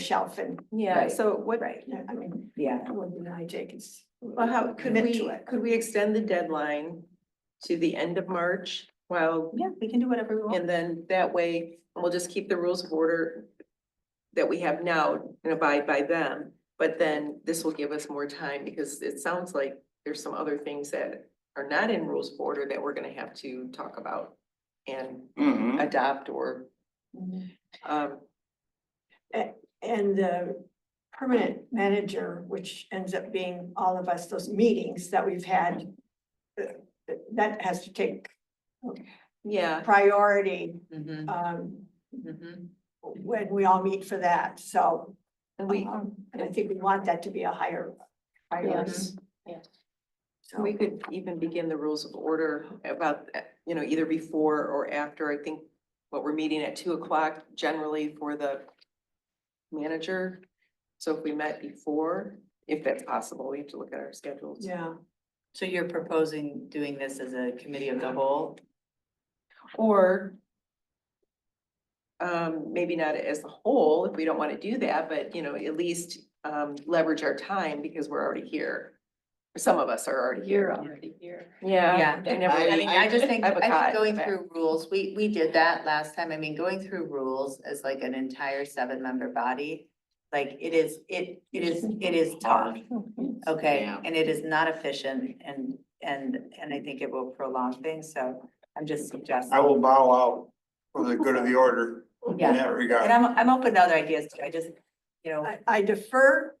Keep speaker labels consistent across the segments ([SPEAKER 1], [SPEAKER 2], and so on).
[SPEAKER 1] shelf and,
[SPEAKER 2] Yeah,
[SPEAKER 3] Right.
[SPEAKER 2] so what,
[SPEAKER 1] right, I mean,
[SPEAKER 3] Yeah,
[SPEAKER 1] I wouldn't deny Jacob's.
[SPEAKER 2] well, how, could
[SPEAKER 1] commit to
[SPEAKER 2] we,
[SPEAKER 1] it.
[SPEAKER 2] could we extend the deadline to the end of March? Well,
[SPEAKER 1] Yeah, we can do whatever we want.
[SPEAKER 2] and then that way, we'll just keep the rules of order that we have now and abide by them, but then this will give us more time, because it sounds like there's some other things that are not in rules of order that we're gonna have to talk about and
[SPEAKER 3] Mhm.
[SPEAKER 2] adopt or, um,
[SPEAKER 1] And the permanent manager, which ends up being all of us, those meetings that we've had, uh, that has to take
[SPEAKER 2] yeah.
[SPEAKER 1] priority
[SPEAKER 2] mhm,
[SPEAKER 1] um,
[SPEAKER 2] mhm.
[SPEAKER 1] when we all meet for that, so.
[SPEAKER 2] And we,
[SPEAKER 1] um, And I think we want that to be a higher priority.
[SPEAKER 2] Yes,
[SPEAKER 3] yes.
[SPEAKER 1] So
[SPEAKER 2] We could even begin the rules of order about, uh, you know, either before or after, I think, what we're meeting at two o'clock generally for the manager. So if we met before, if that's possible, we have to look at our schedules.
[SPEAKER 1] Yeah,
[SPEAKER 4] So you're proposing doing this as a committee of the whole?
[SPEAKER 2] Or um, maybe not as a whole, if we don't want to do that, but, you know, at least um, leverage our time because we're already here. Some of us are already here.
[SPEAKER 3] already here.
[SPEAKER 2] Yeah. I never-
[SPEAKER 4] I mean, I just think,
[SPEAKER 2] have a
[SPEAKER 4] I
[SPEAKER 2] cot.
[SPEAKER 4] think going through rules, we, we did that last time. I mean, going through rules as like an entire seven-member body. Like it is, it, it is, it is tough, okay?
[SPEAKER 3] Yeah.
[SPEAKER 4] And it is not efficient and, and, and I think it will prolong things, so I'm just suggesting.
[SPEAKER 5] I will bow out for the good of the order in
[SPEAKER 4] Yeah,
[SPEAKER 5] that
[SPEAKER 4] and
[SPEAKER 5] regard.
[SPEAKER 4] I'm, I'm open to other ideas too. I just, you know,
[SPEAKER 1] I I defer,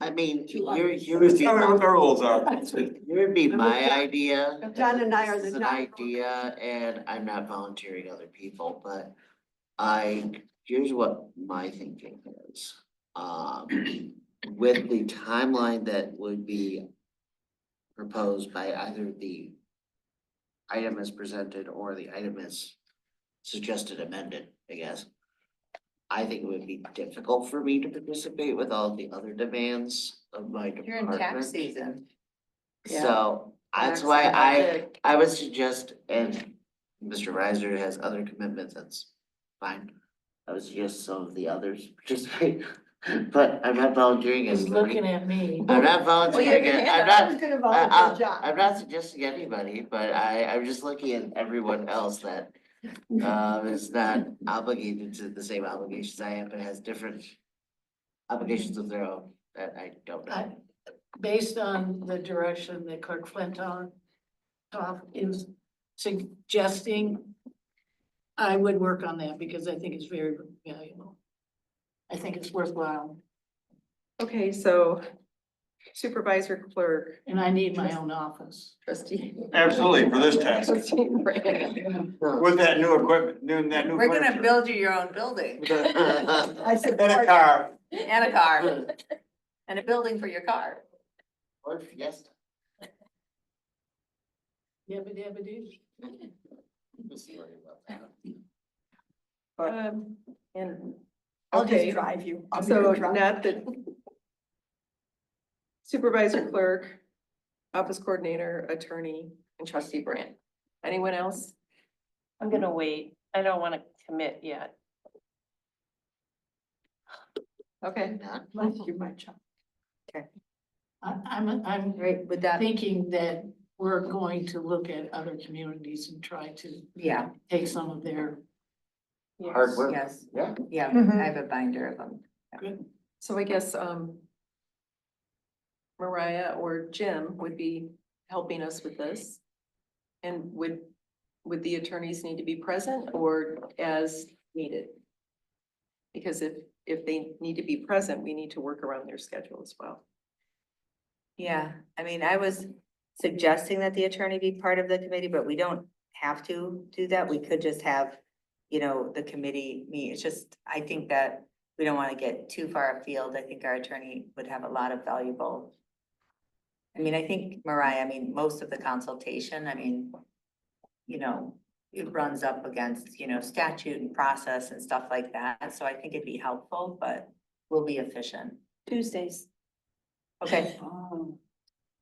[SPEAKER 3] I mean,
[SPEAKER 1] Two
[SPEAKER 3] you're,
[SPEAKER 1] others.
[SPEAKER 5] Let's
[SPEAKER 3] you're,
[SPEAKER 5] see what the rules are.
[SPEAKER 3] you're be my idea.
[SPEAKER 1] John and I are
[SPEAKER 3] This
[SPEAKER 1] the
[SPEAKER 3] is an
[SPEAKER 1] not-
[SPEAKER 3] idea and I'm not volunteering other people, but I, here's what my thinking is. Um, with the timeline that would be proposed by either the item as presented or the item as suggested amended, I guess. I think it would be difficult for me to participate with all the other demands of my
[SPEAKER 4] you're
[SPEAKER 3] department.
[SPEAKER 4] in tax season.
[SPEAKER 2] Yeah.
[SPEAKER 3] So that's why I, I would suggest, and Mr. Reiser has other commitments, that's fine. I would suggest some of the others participate, but I'm not volunteering as.
[SPEAKER 6] He's
[SPEAKER 3] Lorraine.
[SPEAKER 6] looking at me.
[SPEAKER 3] I'm not volunteering, as- I'm not,
[SPEAKER 1] who's gonna
[SPEAKER 3] I-
[SPEAKER 1] volunteer John?
[SPEAKER 3] I'm not suggesting anybody, but I, I'm just looking at everyone else that um, is not obligated to the same obligations I am, but has different obligations of their own that I don't know.
[SPEAKER 6] I- Based on the direction that Clerk Flintoff Toff is suggesting, I would work on that because I think it's very valuable. I think it's worthwhile
[SPEAKER 2] Okay, so supervisor clerk,
[SPEAKER 6] and I need my own office.
[SPEAKER 2] trustee.
[SPEAKER 5] Absolutely, for this task.
[SPEAKER 2] Trustee Moran.
[SPEAKER 5] With that new equipment, new, that new
[SPEAKER 4] We're gonna
[SPEAKER 5] furniture.
[SPEAKER 4] build you your own building
[SPEAKER 1] I
[SPEAKER 5] And
[SPEAKER 1] support
[SPEAKER 5] a car.
[SPEAKER 4] and a car and a building for your car.
[SPEAKER 3] Or fiesta.
[SPEAKER 6] Yabba dabba doo.
[SPEAKER 2] Um, And,
[SPEAKER 1] I'll just
[SPEAKER 2] okay,
[SPEAKER 1] drive you. I'll be
[SPEAKER 2] so
[SPEAKER 1] your driver.
[SPEAKER 2] not the supervisor clerk, office coordinator, attorney, and trustee Brand. Anyone else?
[SPEAKER 7] I'm gonna wait. I don't wanna commit yet.
[SPEAKER 2] Okay.
[SPEAKER 1] Let's do my job.
[SPEAKER 6] I, I'm, I'm
[SPEAKER 4] Right, would that,
[SPEAKER 6] thinking that we're going to look at other communities and try to
[SPEAKER 4] yeah,
[SPEAKER 6] take some of their
[SPEAKER 3] Hard work,
[SPEAKER 4] yes,
[SPEAKER 3] yeah.
[SPEAKER 4] yeah,
[SPEAKER 1] Mhm.
[SPEAKER 4] I have a binder of them.
[SPEAKER 6] good
[SPEAKER 2] So I guess, um, Mariah or Jim would be helping us with this. And would, would the attorneys need to be present or as needed? Because if, if they need to be present, we need to work around their schedule as well.
[SPEAKER 4] Yeah, I mean, I was suggesting that the attorney be part of the committee, but we don't have to do that. We could just have, you know, the committee meet. It's just, I think that we don't want to get too far afield. I think our attorney would have a lot of valuable. I mean, I think Mariah, I mean, most of the consultation, I mean, you know, it runs up against, you know, statute and process and stuff like that. So I think it'd be helpful, but we'll be efficient.
[SPEAKER 7] Tuesdays.
[SPEAKER 4] Okay,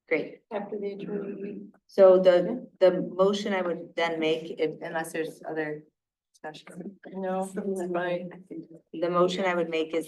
[SPEAKER 4] great.
[SPEAKER 1] After the attorney.
[SPEAKER 4] So the, the motion I would then make, if, unless there's other discussion.
[SPEAKER 2] No,
[SPEAKER 4] The motion I would make is